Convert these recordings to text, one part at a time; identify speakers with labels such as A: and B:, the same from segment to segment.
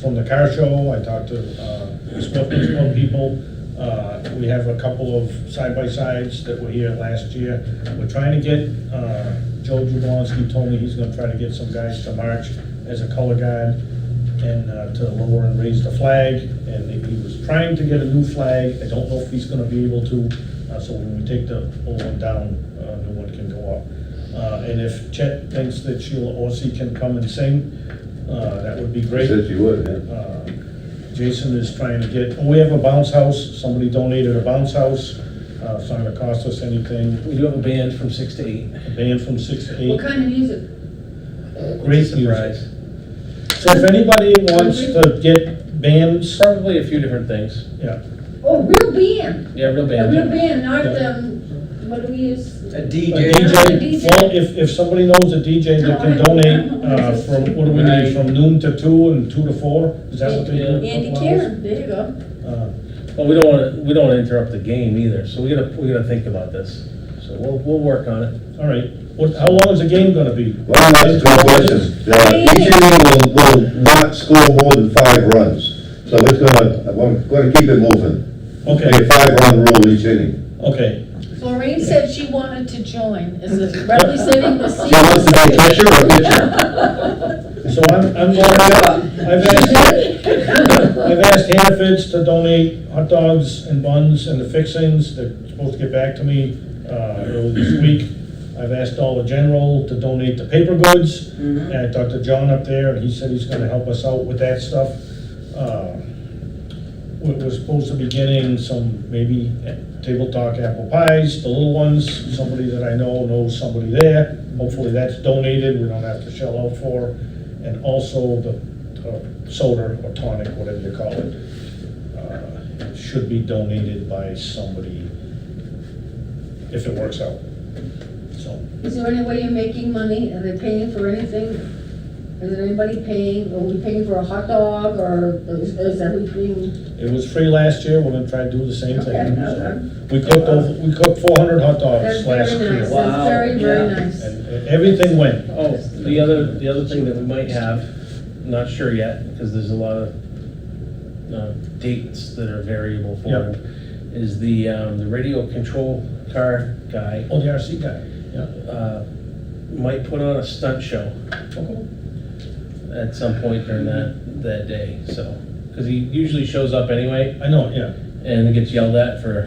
A: from the car show, I talked to uh, Smith Club people. Uh, We have a couple of side-by-sides that were here last year. We're trying to get, uh, Joe Jablonski told me he's gonna try to get some guys to march as a color guard and uh, to lower and raise the flag. And he was trying to get a new flag. I don't know if he's gonna be able to, uh, so when we take the old one down, uh, new one can go up. Uh, And if Chet thinks that Sheila Orsi can come and sing, uh, that would be great.
B: Said you would, yeah.
A: Uh, Jason is trying to get, we have a bounce house, somebody donated a bounce house, uh, it's not gonna cost us anything,
C: We do have a band from six to eight.
A: a band from six to
D: What
A: eight.
D: kind of music?
A: Great
C: Surprise.
A: So if anybody wants to get bands,
C: Probably a few different things.
A: yeah,
D: Oh, real band,
C: Yeah, real
D: a
C: band.
D: real band, not, um, what do we use?
E: A
A: a
E: DJ.
A: DJ, well, if, if somebody knows a DJ that can donate, uh, from, what do we need, from noon to two and two to four, is that what they do?
D: Andy
A: Couple hours?
D: Karen, there you go.
A: Uh,
C: Well, we don't want to, we don't want to interrupt the game either, so we gotta, we gotta think about this. So we'll, we'll work on it.
A: All right, what, how long is the game gonna be?
B: Well, that's a good question. Uh, Each inning will, will not score more than five runs, so it's gonna, I'm gonna keep it moving.
A: Okay,
B: Make a five-run rule each inning.
A: okay,
D: Lorraine said she wanted to join, is it representing the
B: So what's the
D: seniors?
B: catcher or pitcher?
A: so I'm, I'm going, I've asked, I've asked Hannaford's to donate hot dogs and buns and the fixings, they're supposed to get back to me, uh, early this week. I've asked Dollar General to donate the paper goods, and I talked to John up there, and he said he's gonna help us out with that stuff. Uh, we- We're supposed to be getting some, maybe eh, table talk apple pies, the little ones, somebody that I know knows somebody there. Hopefully that's donated, we don't have to shell out for, and also the uh, soda or tonic, whatever you call it, uh, should be donated by somebody if it works out. So,
D: Is there any way you're making money, are they paying for anything? Is there anybody paying, are we paying for a hot dog, or is is everything?
A: it was free last year, we're gonna try to do the same
D: Okay,
A: thing.
D: okay.
A: So, We cooked over, we cooked four hundred hot
D: That's
A: dogs last
D: very nice,
A: year.
D: that's
E: Wow,
D: very, very
E: yeah.
D: nice.
A: And and everything went.
C: Oh, the other, the other thing that we might have, not sure yet, because there's a lot of uh, dates that are variable for
A: Yep.
C: it, is the, um, the radio control car guy
A: Oh, the RC guy, yeah.
C: uh, might put on a stunt show at some point during that, that day, so. Because he usually shows up anyway
A: I know, yeah.
C: and gets yelled at for,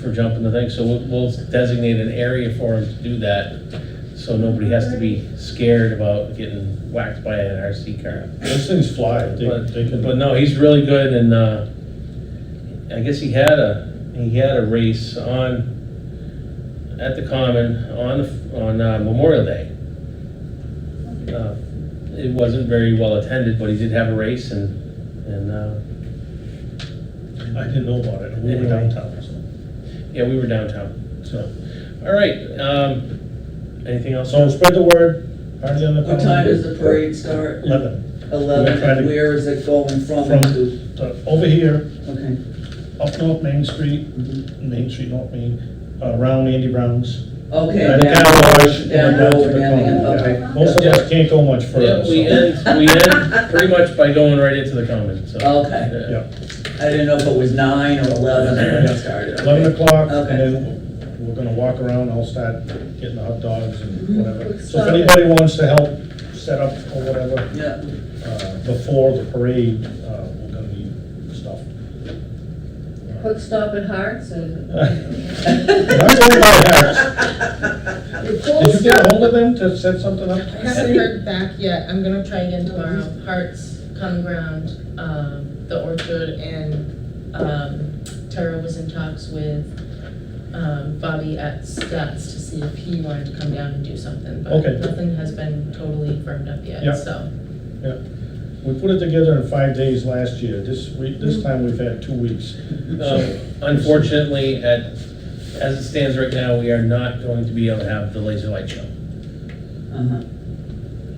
C: for jumping the thing, so we'll- we'll designate an area for him to do that, so nobody has to be scared about getting whacked by an RC car.
A: Those things fly, they,
C: But,
A: they
C: but
A: can,
C: no, he's really good and, uh, I guess he had a, he had a race on, at the Common on, the- on uh, Memorial Day. Uh, It wasn't very well attended, but he did have a race and, and, uh,
A: I didn't know about it, we were
C: Anyway.
A: downtown,
C: yeah, we were downtown.
A: so, so.
C: All right, um, anything else?
A: So spread the word, party on the.
E: What time does the parade start?
A: Eleven, We're
E: Eleven,
A: trying to-
E: and where is it going from?
A: From-
E: to?
A: So, over here,
E: Okay.
A: up North Main Street, Main Street, North Main, uh, around Andy Brown's.
E: Okay.
A: By the
E: down-
A: car wash and
E: Down
A: down
E: over,
A: to the
E: down there,
A: common,
E: okay.
A: yeah. Most of us can't go much
C: Yeah,
A: further,
C: we
A: so.
C: end, we end pretty much by going right into the Common, so.
E: Okay.
C: yeah.
A: Yeah,
E: I didn't know if it was nine or eleven when it started.
A: eleven o'clock,
E: Okay.
A: and then we're gonna walk around, I'll start getting the hot dogs and
D: Mhm.
E: Mm-hmm.
A: whatever.
D: Let's
A: So if
D: start it.
A: anybody wants to help set up or whatever,
E: Yeah,
A: uh, before the parade, uh, we're gonna need stuff.
D: Quick stop at Hearts, and.
A: Not going by house. Did you
D: Did
A: get hold of them to set something up?
F: I haven't heard back yet, I'm gonna try again tomorrow, Hearts, Common Ground, um, The Orchard, and, um, Tara was in talks with, um, Bobby at Stats to see if he wanted to come down and do something, but
A: Okay.
F: nothing has been totally firmed up
A: Yeah.
F: yet, so.
A: We put it together in five days last year, this week, this
E: Mm-hmm.
A: time we've had two weeks.
C: Um, Unfortunately, at, as it stands right now, we are not going to be able to have the laser light show,
E: uh-huh,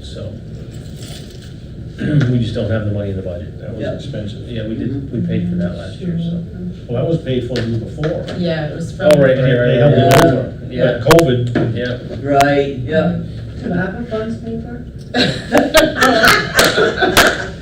C: so. We just don't have the money in the budget.
A: That
E: Yeah.
A: was expensive.
C: Yeah, we did, we paid for that last year, so.
A: Well, that was paid for you before.
F: Yeah, it was from.
C: Oh, right
A: They
C: here,
A: they
C: right
A: held it
E: Yeah.
A: over,
C: Yeah.
A: but COVID,
C: Yeah,
E: Uh-huh. right, yeah.
D: ARPA funds paper?
F: Well,